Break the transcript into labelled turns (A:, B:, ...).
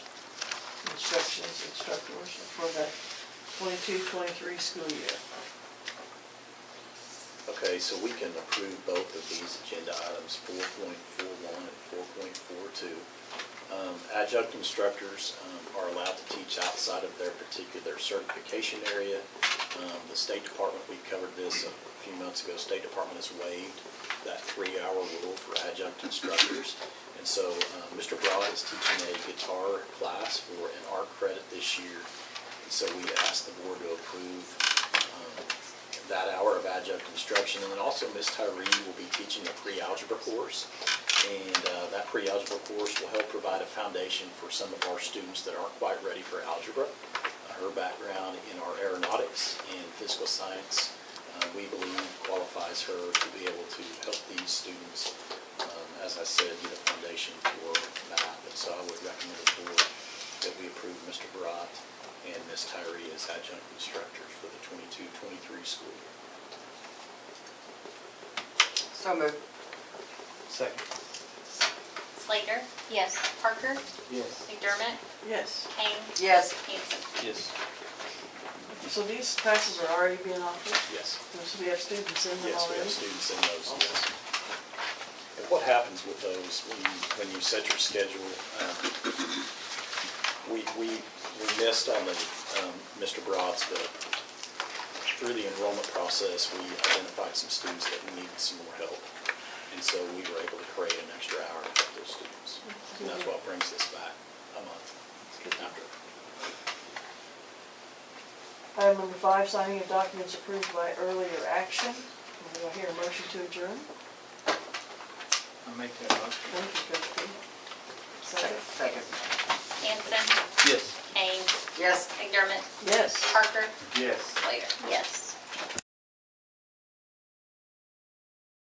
A: as instructors for the 22-23 school year.
B: Okay, so we can approve both of these agenda items, four point four one and four point four two. Um, Adjunct instructors um, are allowed to teach outside of their particular certification area. Um, The State Department, we covered this a few months ago, State Department has waived that three-hour rule for adjunct instructors. And so uh, Mr. Broad is teaching a guitar class for an art credit this year. And so we asked the board to approve um, that hour of adjunct instruction. And then also Ms. Tyree will be teaching a pre-algebra course. And uh, that pre-algebra course will help provide a foundation for some of our students that aren't quite ready for algebra. Uh, Her background in our aeronautics and physical science, uh, we believe qualifies her to be able to help these students, um, as I said, get a foundation for math. And so I would recommend the board that we approve Mr. Barat and Ms. Tyree as adjunct instructors for the 22-23 school year.
C: So moved.
D: Second.
E: Slater? Yes. Parker?
D: Yes.
E: McDermott?
A: Yes,
E: Kane?
C: Yes.
E: Hanson?
D: Yes.
A: so these classes are already being offered,
B: Yes.
A: so we have students in them
B: Yes, we
A: already?
B: have students in those, yes. And what happens with those when you, when you set your schedule? um, We, we, we missed on the, um, Mr. Broad's, but through the enrollment process, we identified some students that needed some more help. And so we were able to create an extra hour for those students. And that's what brings this back a month after.
A: Item number five, signing of documents approved by earlier action. Do I hear a motion to adjourn?
D: I make that motion.
A: Thank you, Coach P. Second?
C: Second.
E: Hanson?
D: Yes.
E: Kane?
C: Yes.
E: McDermott?
A: Yes.
E: Parker?
D: Yes.
E: Slater? Yes.